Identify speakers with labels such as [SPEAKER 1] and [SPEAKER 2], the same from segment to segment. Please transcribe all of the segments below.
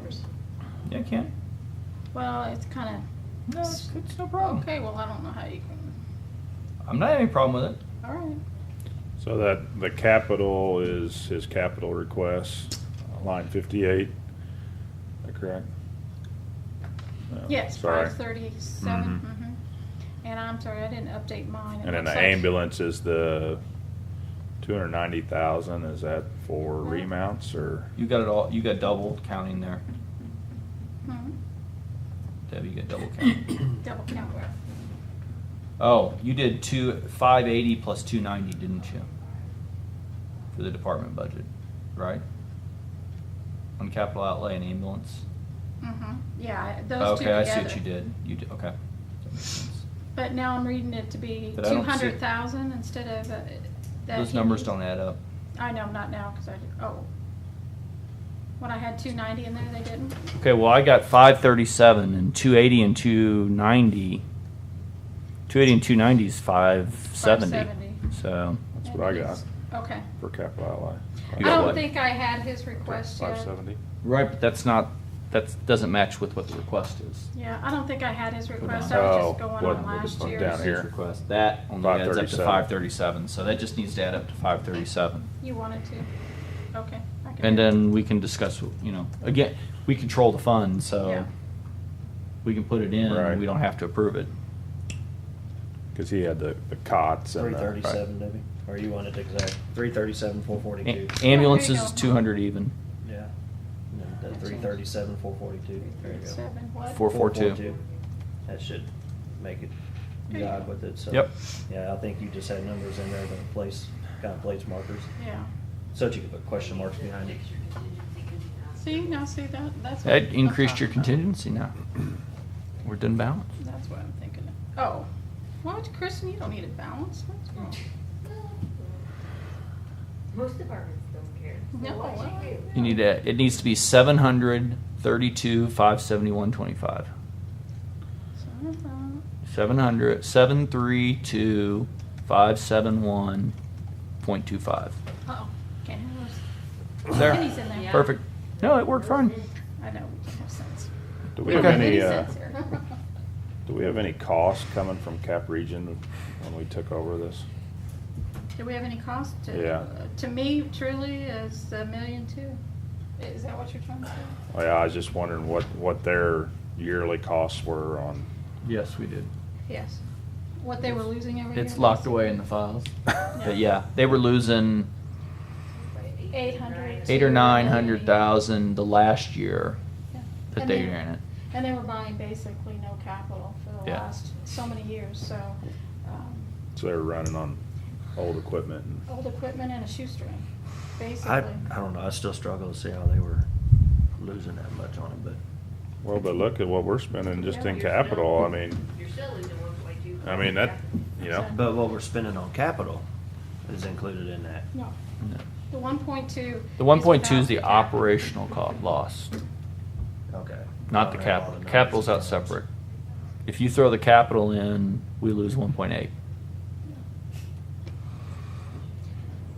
[SPEAKER 1] years.
[SPEAKER 2] Yeah, I can.
[SPEAKER 1] Well, it's kind of,
[SPEAKER 2] No, it's, it's no
[SPEAKER 3] Oh.
[SPEAKER 2] problem.
[SPEAKER 1] okay, well, I don't know how you can,
[SPEAKER 2] I'm not having any problem with it.
[SPEAKER 1] all right.
[SPEAKER 3] So that, the capital is his capital request, line fifty-eight, is that correct? No,
[SPEAKER 1] Yes,
[SPEAKER 3] Oh, sorry.
[SPEAKER 1] five thirty-seven, mm-hmm. And I'm sorry, I didn't update mine. It
[SPEAKER 3] And then
[SPEAKER 1] looks
[SPEAKER 3] the
[SPEAKER 1] like-
[SPEAKER 3] ambulance is the two hundred ninety thousand, is that for
[SPEAKER 1] No.
[SPEAKER 3] remounts or?
[SPEAKER 2] You got it all. You got double counting there,
[SPEAKER 1] Mhm.
[SPEAKER 2] Debbie. You got double counting.
[SPEAKER 1] hmm, Double count where?
[SPEAKER 2] oh, you did two five eighty plus two ninety, didn't you? For the department budget, right? On capital outlay and ambulance.
[SPEAKER 1] Mm-hmm, yeah, I- those two
[SPEAKER 2] Okay,
[SPEAKER 1] together.
[SPEAKER 2] I see what you did. You did okay. That makes sense.
[SPEAKER 1] But now I'm reading it to be
[SPEAKER 2] But I
[SPEAKER 1] two
[SPEAKER 2] don't see-
[SPEAKER 1] hundred thousand instead of uh, that.
[SPEAKER 2] Those
[SPEAKER 1] he
[SPEAKER 2] numbers
[SPEAKER 1] used.
[SPEAKER 2] don't add up.
[SPEAKER 1] I know, not now, because I, did- oh. When I had two ninety in there, they didn't?
[SPEAKER 2] Okay, well, I got 537 and 280 and 290. 280 and 290 is 570.
[SPEAKER 1] 570.
[SPEAKER 2] So,
[SPEAKER 3] That's what I got
[SPEAKER 1] Okay.
[SPEAKER 3] for capital outlay.
[SPEAKER 1] I
[SPEAKER 2] You got
[SPEAKER 1] don't
[SPEAKER 2] what?
[SPEAKER 1] think I had his request
[SPEAKER 3] Five
[SPEAKER 1] yet.
[SPEAKER 3] seventy?
[SPEAKER 2] right, but that's not, that doesn't match with what the request is.
[SPEAKER 1] Yeah, I don't think I had his request,
[SPEAKER 2] down.
[SPEAKER 1] I was
[SPEAKER 3] Oh,
[SPEAKER 1] just going
[SPEAKER 3] what-
[SPEAKER 1] on
[SPEAKER 3] what is
[SPEAKER 1] last
[SPEAKER 3] on
[SPEAKER 1] year's.
[SPEAKER 3] down here?
[SPEAKER 2] Request. That only adds up to
[SPEAKER 3] 537.
[SPEAKER 2] 537. So that just needs to add up to 537.
[SPEAKER 1] You wanted to? Okay. I can
[SPEAKER 2] And
[SPEAKER 1] do it.
[SPEAKER 2] then we can discuss, you know, again, we control the fund,
[SPEAKER 1] Yeah.
[SPEAKER 2] so we can put it in.
[SPEAKER 3] Right.
[SPEAKER 2] and We don't have to approve it.
[SPEAKER 3] Cause he had the, the cots and
[SPEAKER 4] Three
[SPEAKER 3] the.
[SPEAKER 4] thirty-seven, Debbie, or you want it exact, three thirty-seven, four forty-two,
[SPEAKER 2] A-
[SPEAKER 1] you
[SPEAKER 2] ambulances
[SPEAKER 1] go.
[SPEAKER 2] is 200 even.
[SPEAKER 4] yeah. Three thirty-seven, four forty-two, there you go.
[SPEAKER 1] Seven, what?
[SPEAKER 2] Four- 442.
[SPEAKER 4] 442. That should make it
[SPEAKER 1] There you
[SPEAKER 4] jive
[SPEAKER 1] go.
[SPEAKER 4] with it, so.
[SPEAKER 2] Yep.
[SPEAKER 4] Yeah, I think you just had numbers in there that place, kind of place markers,
[SPEAKER 1] Yeah.
[SPEAKER 4] so that you could put question marks behind it.
[SPEAKER 1] See, now see that, that's. what-
[SPEAKER 2] That increased
[SPEAKER 1] that's
[SPEAKER 2] your
[SPEAKER 1] what-
[SPEAKER 2] contingency now. We're done balance.
[SPEAKER 1] That's what I'm thinking of. Oh, what, Kristen, you don't need a balance, what's wrong?
[SPEAKER 5] Most departments don't care.
[SPEAKER 1] No,
[SPEAKER 5] What
[SPEAKER 1] well.
[SPEAKER 5] you do.
[SPEAKER 2] You need to, it needs to be seven hundred thirty-two, five seventy-one, twenty-five.
[SPEAKER 1] So, uh,
[SPEAKER 2] Seven hundred, seven three two, five seven one, point two five.
[SPEAKER 1] Uh-oh, can't have those. Pennies in
[SPEAKER 2] There,
[SPEAKER 1] there.
[SPEAKER 2] perfect. No, it worked fine.
[SPEAKER 1] I know, we can have sense.
[SPEAKER 3] Do we
[SPEAKER 2] Okay.
[SPEAKER 3] have any, uh,
[SPEAKER 1] sense here.
[SPEAKER 3] do we have any costs coming from Cap Region when we took over this?
[SPEAKER 1] Do we have any cost to?
[SPEAKER 3] Yeah.
[SPEAKER 1] To me, truly, is a million two. Is that what you're trying to say?
[SPEAKER 3] Well, Oh, yeah, I was just wondering what, what their yearly costs were on.
[SPEAKER 2] Yes, we did.
[SPEAKER 1] Yes. What they were losing every year?
[SPEAKER 2] It's locked away in the files. But yeah, they were losing
[SPEAKER 1] Eight hundred.
[SPEAKER 2] eight or nine hundred thousand the last year that they ran it.
[SPEAKER 1] And they were buying basically no capital for the
[SPEAKER 2] Yeah.
[SPEAKER 1] last, so many years, so, um,
[SPEAKER 3] So they were running on old equipment and.
[SPEAKER 1] old equipment and a shoestring,
[SPEAKER 4] I,
[SPEAKER 1] basically.
[SPEAKER 4] I don't know, I still struggle to see how they were losing that much on it, but
[SPEAKER 3] Well, but look at what we're spending just in
[SPEAKER 5] You're still-
[SPEAKER 3] capital, I mean,
[SPEAKER 5] You're still losing one point two.
[SPEAKER 3] I mean, that, you know,
[SPEAKER 4] But what we're spending on capital is included in that.
[SPEAKER 1] No,
[SPEAKER 2] No.
[SPEAKER 1] the one point two.
[SPEAKER 2] The one point two is the operational cost lost.
[SPEAKER 4] Okay.
[SPEAKER 2] Not the
[SPEAKER 4] I don't have all
[SPEAKER 2] capital.
[SPEAKER 4] the
[SPEAKER 2] Capital's out
[SPEAKER 4] numbers.
[SPEAKER 2] separate. If you throw the capital in, we lose one point eight.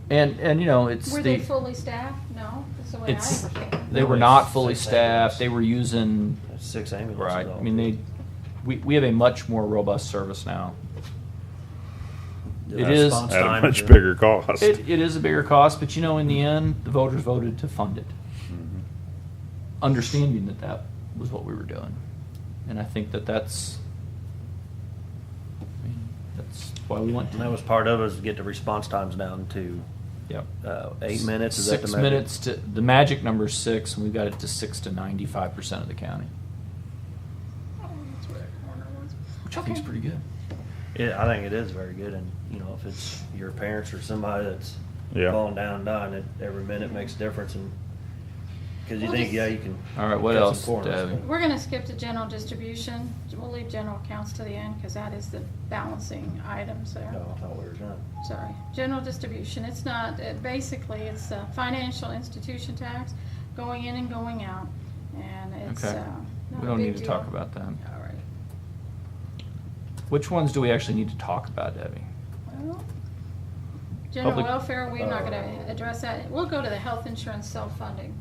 [SPEAKER 2] And, and you know, it's
[SPEAKER 1] Were they
[SPEAKER 2] the,
[SPEAKER 1] fully staffed? No, that's the way I
[SPEAKER 2] it's,
[SPEAKER 1] understand.
[SPEAKER 2] they were not fully staffed, they were using,
[SPEAKER 4] That's Six ambulances.
[SPEAKER 2] right,
[SPEAKER 4] all
[SPEAKER 2] I mean, they, we, we have a much more robust service now.
[SPEAKER 4] The
[SPEAKER 2] it is-
[SPEAKER 4] response
[SPEAKER 3] at a
[SPEAKER 4] time
[SPEAKER 3] much
[SPEAKER 4] is-
[SPEAKER 3] bigger cost.
[SPEAKER 2] It, it is a bigger cost, but you know, in the end, the voters voted to fund it.
[SPEAKER 3] Mhm.
[SPEAKER 2] understanding that that was what we were doing. And I think that that's, I mean, that's why we went
[SPEAKER 4] And that
[SPEAKER 2] to,
[SPEAKER 4] was part of us to get the response times down to
[SPEAKER 2] yep.
[SPEAKER 4] uh, eight minutes. Is that the
[SPEAKER 2] Six
[SPEAKER 4] measure?
[SPEAKER 2] minutes to, the magic number is six, and we got it to six to ninety-five percent of the county,
[SPEAKER 1] Oh, that's where that corner was.
[SPEAKER 2] which I think is
[SPEAKER 1] Okay.
[SPEAKER 2] pretty good.
[SPEAKER 4] Yeah, I think it is very good, and you know, if it's your parents or somebody that's
[SPEAKER 3] Yeah.
[SPEAKER 4] falling down and dying, it, every minute makes a difference, and because you
[SPEAKER 1] Well,
[SPEAKER 4] think,
[SPEAKER 1] just-
[SPEAKER 4] yeah, you can.
[SPEAKER 2] All right, what
[SPEAKER 4] cut some
[SPEAKER 2] else,
[SPEAKER 4] corners,
[SPEAKER 2] Debbie?
[SPEAKER 1] We're gonna skip to general distribution. We'll leave general accounts to the end, cause that is the balancing items
[SPEAKER 4] but-
[SPEAKER 1] there.
[SPEAKER 4] No, I thought we were done.
[SPEAKER 1] sorry, general distribution, it's not, it basically, it's a financial institution tax going in and going out, and it's,
[SPEAKER 2] Okay.
[SPEAKER 1] uh, not
[SPEAKER 2] We
[SPEAKER 1] a
[SPEAKER 2] don't
[SPEAKER 1] big
[SPEAKER 2] need to talk
[SPEAKER 1] deal.
[SPEAKER 2] about that.
[SPEAKER 1] All right,
[SPEAKER 2] Which ones do we actually need to talk about, Debbie?
[SPEAKER 1] well, general
[SPEAKER 2] Public-
[SPEAKER 1] welfare, we're not
[SPEAKER 4] Uh,
[SPEAKER 1] gonna address that, we'll go to the health insurance self-funding.